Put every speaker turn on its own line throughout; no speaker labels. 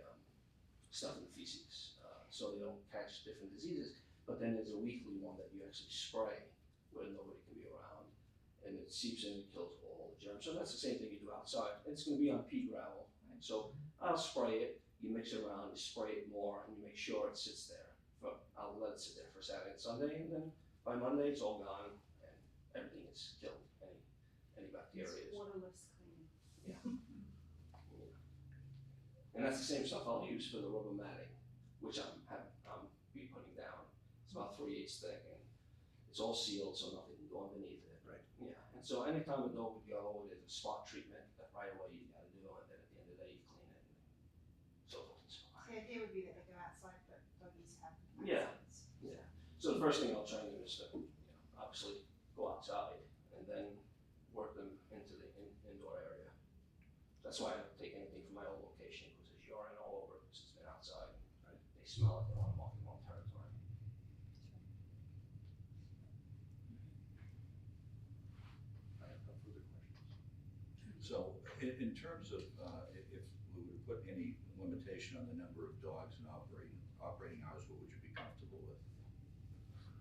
um, stuff in the feces, uh, so they don't catch different diseases. But then there's a weekly one that you actually spray where nobody can be around, and it seeps in and kills all the germs. So that's the same thing you do outside. It's going to be on pea gravel, right? So I'll spray it. You mix it around, you spray it more, and you make sure it sits there. For, I'll let it sit there for Saturday and Sunday, and then by Monday it's all gone and everything is killed. Any any bacteria is.
Waterless cleaning.
And that's the same stuff I'll use for the rubber matting, which I'm have I'm be putting down. It's about three eighths thick and it's all sealed so nothing can go underneath it.
Right.
Yeah. And so anytime a dog would go, there's a spot treatment that right away you gotta do and then at the end of the day you clean it and so forth and so on.
So it would be that they go outside, but doggies have.
Yeah.
accents.
So the first thing I'll try and do is to, you know, obviously go outside and then work them into the in, indoor area. That's why I don't take anything from my old location because there's urine all over because it's been outside.
Right.
They smell it, they want to mark their own territory.
I have no further questions. So in, in terms of, uh, i- if we were to put any limitation on the number of dogs and operating, operating hours, what would you be comfortable with?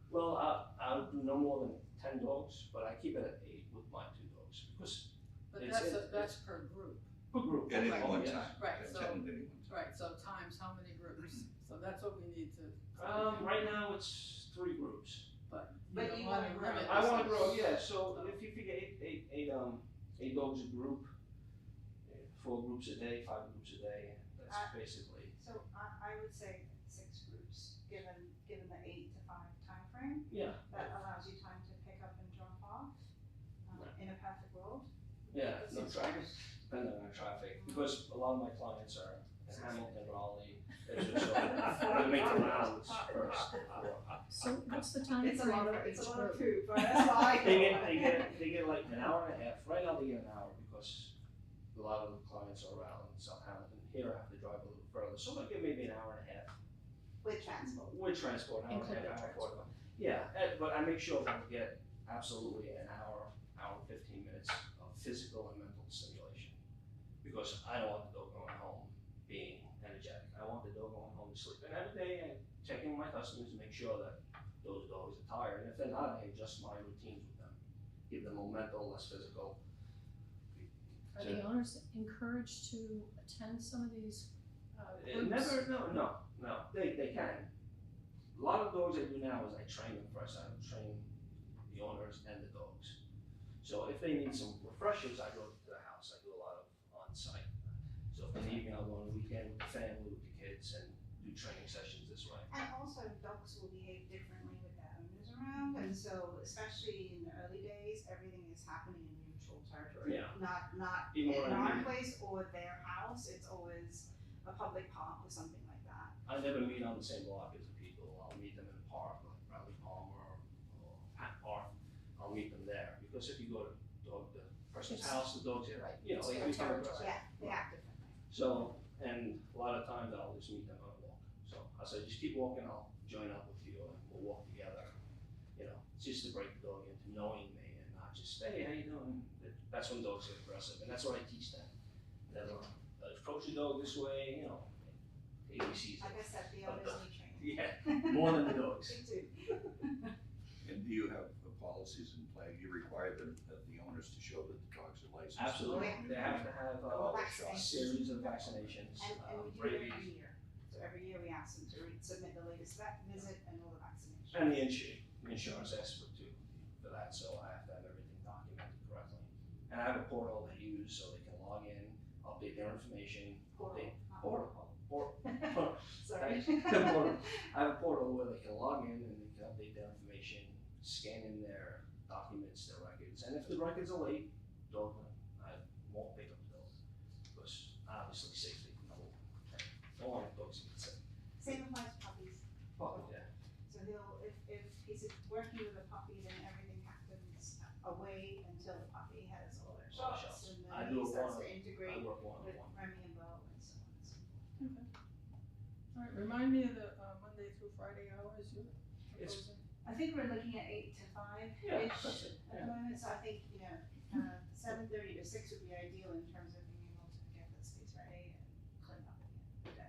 Well, I, I'll do no more than 10 dogs, but I keep it at eight with my two dogs because
But
It's-
that's, a-
it's-
that's per group,
per group.
At any
Oh,
one
yes.
time?
Right,
At
so-
ten at any one time?
right, so times how many groups, so that's what we need to.
Mm-hmm. Um, right now it's three groups.
But you
But
don't
you
wanna
wanna
limit.
grow.
I want to grow, yeah. So if you figure eight, eight, eight, um, eight dogs a group, eh, four groups a day, five groups a day, that's
Uh,
basically.
So I, I would say six groups, given, given the eight to five time frame,
Yeah,
that allows you time to pick up and drop off, um, in a perfect world.
yeah, no
Six
traffic,
groups.
depending on traffic, because a lot of my clients are in Hamilton, Raleigh, Edgewood, so they make the rounds first. before-
So what's the time
It's a lot
frame
of,
for each
it's a lot of food,
group?
but that's all I know.
They get, they get, they get like an hour and a half, right now they get an hour because a lot of the clients are around South Hamilton, here I have to drive a little further, so they give maybe an hour and a half
With transport.
With transport, I don't have
Including
hour
transport.
forty. Yeah, eh, but I make sure that we get absolutely an hour, hour and fifteen minutes of physical and mental stimulation. Because I don't want the dog going home being energetic, I want the dog going home to sleep. And every day I check in with my customers to make sure that those dogs are tired, and if they're not, I adjust my routines with them. Give them more mental, less physical.
Are the owners encouraged to attend some of these uh,
Eh,
groups?
Never, no, no, no, they, they can. A lot of dogs I do now is I train them first, I train the owners and the dogs. So if they need some refreshers, I go to the house, I do a lot of on-site. So if in the evening, I'll go on the weekend with the family, with the kids, and do training sessions this way.
And also dogs will behave differently with their owners around, and so especially in the early days, everything is happening in neutral territory.
Yeah.
Not, not
Even
in
when I
our
meet,
place or their house, it's always a public park or something like that.
I never meet on the same block as the people, I'll meet them in the park, like Bradley Palmer or Pat Park. I'll meet them there, because if you go to dog, the person's
It's-
house, the dog's here,
Right,
you know,
it's
they
their
become aggressive.
territory.
Yeah, they act differently.
So, and a lot of times I'll just meet them on a walk. So I said, just keep walking, I'll join up with you and we'll walk together. You know, it's just to break the dog into knowing me and not just, hey, how you doing? That- That's when dogs get aggressive and that's what I teach them. That uh, approach your dog this way, you know, ABCs.
Like I said, the owners need training.
Yeah, more than the dogs.
Me too.
And do you have the policies in play? You require the, the owners to show that the dogs are licensed?
Absolutely. They have to have uh, a
Vaccinations.
series of vaccinations,
And,
uh,
and we do it
rabies.
every year. So every year we ask them to re- submit the latest vet visit and all the vaccinations.
And the insurance, insurance expert too, for that, so I have to have everything documented correctly. And I have a portal they use so they can log in, update their information,
Oral, not
Oral.
oral.
or,
Sorry.
Oral. I have a portal where they can log in and they can update their information, scan in their documents, their records, and if the records are late, don't, I won't pick up the bill. Because obviously safety, I won't, I don't want dogs to get sick.
Same applies to puppies.
But, yeah,
So he'll, if, if he's working with a puppy, then everything happens away until the puppy has all their
All the
shots and
I
then
do
he
a
starts
one-
to
I
integrate
work one
with
on one.
Remy and Bo and so on and so forth.
All right, remind me of the uh, Monday through Friday hours you're
It's-
proposing.
I think we're looking at eight to five-ish
Yeah, that's it,
at the moment, so I think, you know, uh, seven thirty to six would be ideal in terms of